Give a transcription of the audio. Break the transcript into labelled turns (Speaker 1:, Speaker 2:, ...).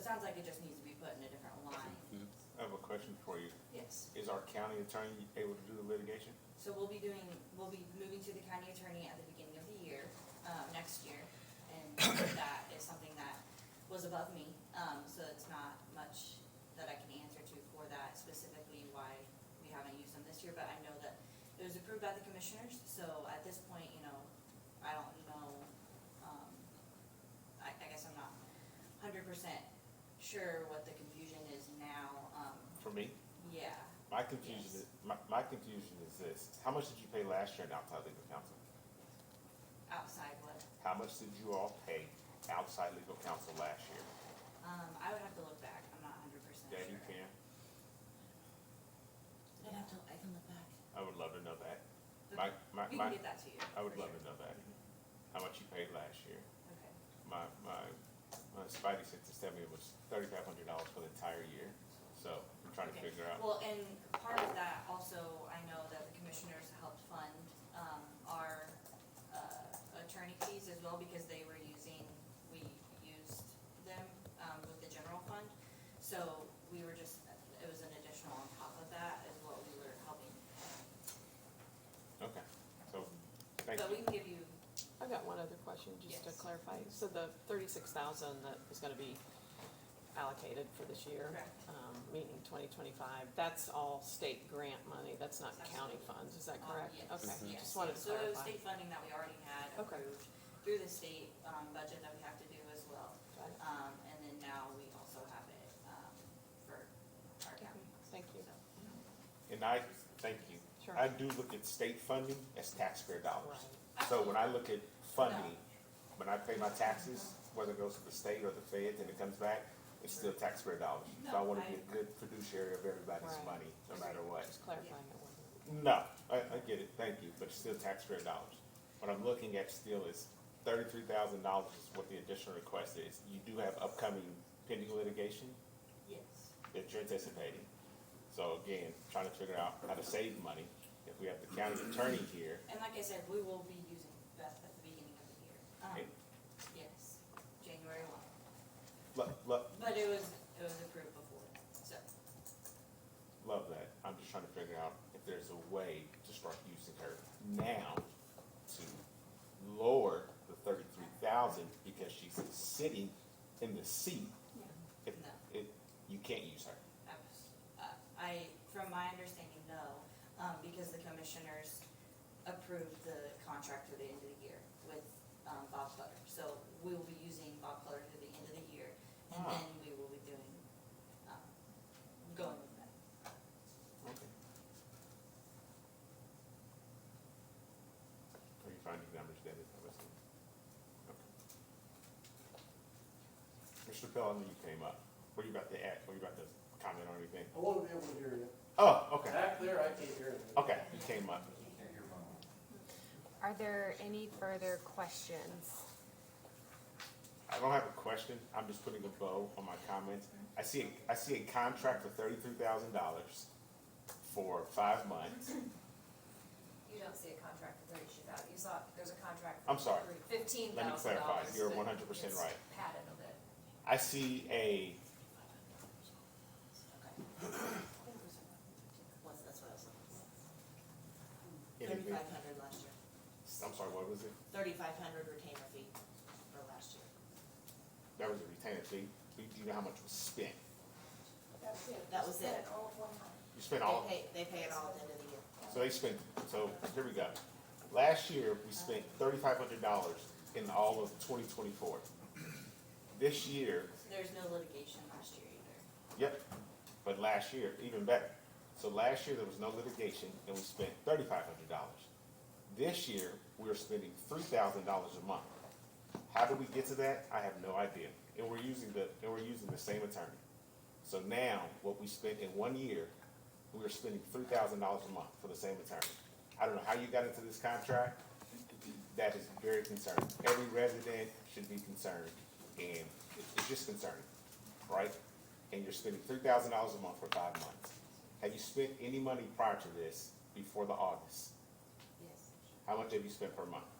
Speaker 1: sounds like it just needs to be put in a different line,
Speaker 2: I have a question for you.
Speaker 1: yes.
Speaker 2: Is our county attorney able to do the litigation?
Speaker 1: So we'll be doing, we'll be moving to the county attorney at the beginning of the year, um, next year. And that is something that was above me, um, so it's not much that I can answer to for that specifically why we haven't used them this year. But I know that it was approved by the commissioners, so at this point, you know, I don't know, um, I, I guess I'm not hundred percent sure what the confusion is now, um,
Speaker 2: For me,
Speaker 1: yeah.
Speaker 2: my confusion
Speaker 1: Yes.
Speaker 2: is, my, my confusion is this. How much did you pay last year in outside legal counsel?
Speaker 1: outside what,
Speaker 2: How much did you all pay outside legal counsel last year?
Speaker 1: um, I would have to look back, I'm not hundred percent sure.
Speaker 2: Yeah, you can.
Speaker 3: I'd have to, I can look back.
Speaker 2: I would love to know that.
Speaker 1: But
Speaker 2: My, my,
Speaker 1: We
Speaker 2: my,
Speaker 1: can get that to you.
Speaker 2: I would
Speaker 1: for
Speaker 2: love
Speaker 1: sure.
Speaker 2: to know that. How much you paid last year?
Speaker 1: Okay,
Speaker 2: My, my, my Spidey said to tell me it was thirty-five hundred dollars for the entire year. So I'm trying to
Speaker 1: Okay.
Speaker 2: figure out.
Speaker 1: well, and part of that also, I know that the commissioners helped fund, um, our, uh, attorney fees as well, because they were using, we used them, um, with the general fund. So we were just, it was an additional on top of that is what we were helping.
Speaker 2: Okay, so, thank
Speaker 1: But we
Speaker 2: you.
Speaker 1: can give you,
Speaker 4: I've got one other question, just to
Speaker 1: Yes.
Speaker 4: clarify. So the thirty-six thousand that is gonna be allocated for this year,
Speaker 1: Correct.
Speaker 4: um, meaning twenty twenty-five, that's all state grant money, that's not county
Speaker 1: Absolutely.
Speaker 4: funds, is that
Speaker 1: Um,
Speaker 4: correct?
Speaker 1: yes,
Speaker 4: Okay,
Speaker 1: yes.
Speaker 4: just wanted to
Speaker 1: So it was
Speaker 4: clarify.
Speaker 1: state funding that we already had
Speaker 4: Okay.
Speaker 1: approved through the state, um, budget that we have to do as well.
Speaker 4: Got it.
Speaker 1: Um, and then now we also have it, um, for our county.
Speaker 4: Thank you.
Speaker 1: So,
Speaker 2: And I, thank you.
Speaker 4: Sure.
Speaker 2: I do look at state funding as taxpayer dollars.
Speaker 4: Right.
Speaker 2: So when I look at funding, when I pay my taxes, whether it goes to the state or the feds and it comes back, it's still taxpayer dollars. So I
Speaker 1: No,
Speaker 2: wanna
Speaker 1: I-
Speaker 2: be a good fiduciary of everybody's
Speaker 4: Right.
Speaker 2: money, no matter what.
Speaker 4: Just clarifying it. wasn't-
Speaker 2: No, I, I get it, thank you, but it's still taxpayer dollars. What I'm looking at still is thirty-three thousand dollars is what the additional request is. You do have upcoming pending litigation
Speaker 1: Yes,
Speaker 2: that you're anticipating. So again, trying to figure out how to save money. If we have the county attorney here,
Speaker 1: and like I said, we will be using Beth at the beginning of the year. Um,
Speaker 2: Okay.
Speaker 1: yes, January one,
Speaker 2: lo- lo-
Speaker 1: but it was, it was approved before, so,
Speaker 2: love that. I'm just trying to figure out if there's a way to start using her now to lower the thirty-three thousand because she's sitting in the seat.
Speaker 1: yeah.
Speaker 2: If,
Speaker 1: No.
Speaker 2: if, you can't use her.
Speaker 1: Abs- uh, I, from my understanding, no, um, because the commissioners approved the contract through the end of the year with, um, Bob Clutter. So we will be using Bob Clutter through the end of the year, and
Speaker 2: Ah.
Speaker 1: then we will be doing, um, going with that.
Speaker 2: Okay. Are you finding numbers, David? I was- okay. Mr. Pell, I knew you came up. What are you about to add? What are you about to comment on anything?
Speaker 5: I want to be able to hear you.
Speaker 2: Oh, okay.
Speaker 5: Back there, I can't hear you.
Speaker 2: Okay, you came up.
Speaker 6: Are there any further questions?
Speaker 2: I don't have a question. I'm just putting a bow on my comments. I see, I see a contract for thirty-three thousand dollars for five months.
Speaker 7: You don't see a contract for thirty-two thousand, you saw, there's a contract.
Speaker 2: I'm sorry.
Speaker 7: Fifteen
Speaker 2: Let me
Speaker 7: thousand
Speaker 2: clarify.
Speaker 7: dollars.
Speaker 2: You're 100% right.
Speaker 7: Padded a bit.
Speaker 2: I see a,
Speaker 3: What's, that's what I was looking for.
Speaker 2: anything,
Speaker 3: Thirty-five hundred last year,
Speaker 2: I'm sorry, what was it?
Speaker 3: thirty-five hundred retainer fee for last year.
Speaker 2: That was a retainer fee. Do you know how much was spent?
Speaker 3: That was it.
Speaker 2: You spent all,
Speaker 3: They pay, they pay it all at the end of the year.
Speaker 2: so they spent, so here we go. Last year, we spent thirty-five hundred dollars in all of twenty twenty-four. This year,
Speaker 1: There's no litigation last year either.
Speaker 2: yep, but last year, even better. So last year, there was no litigation, and we spent thirty-five hundred dollars. This year, we're spending three thousand dollars a month. How do we get to that? I have no idea. And we're using the, and we're using the same attorney. So now, what we spent in one year, we are spending three thousand dollars a month for the same attorney. I don't know how you got into this contract. That is very concerning. Every resident should be concerned, and it- it's just concerning, right? And you're spending three thousand dollars a month for five months. Have you spent any money prior to this before the August?
Speaker 1: Yes.
Speaker 2: How much have you spent per month?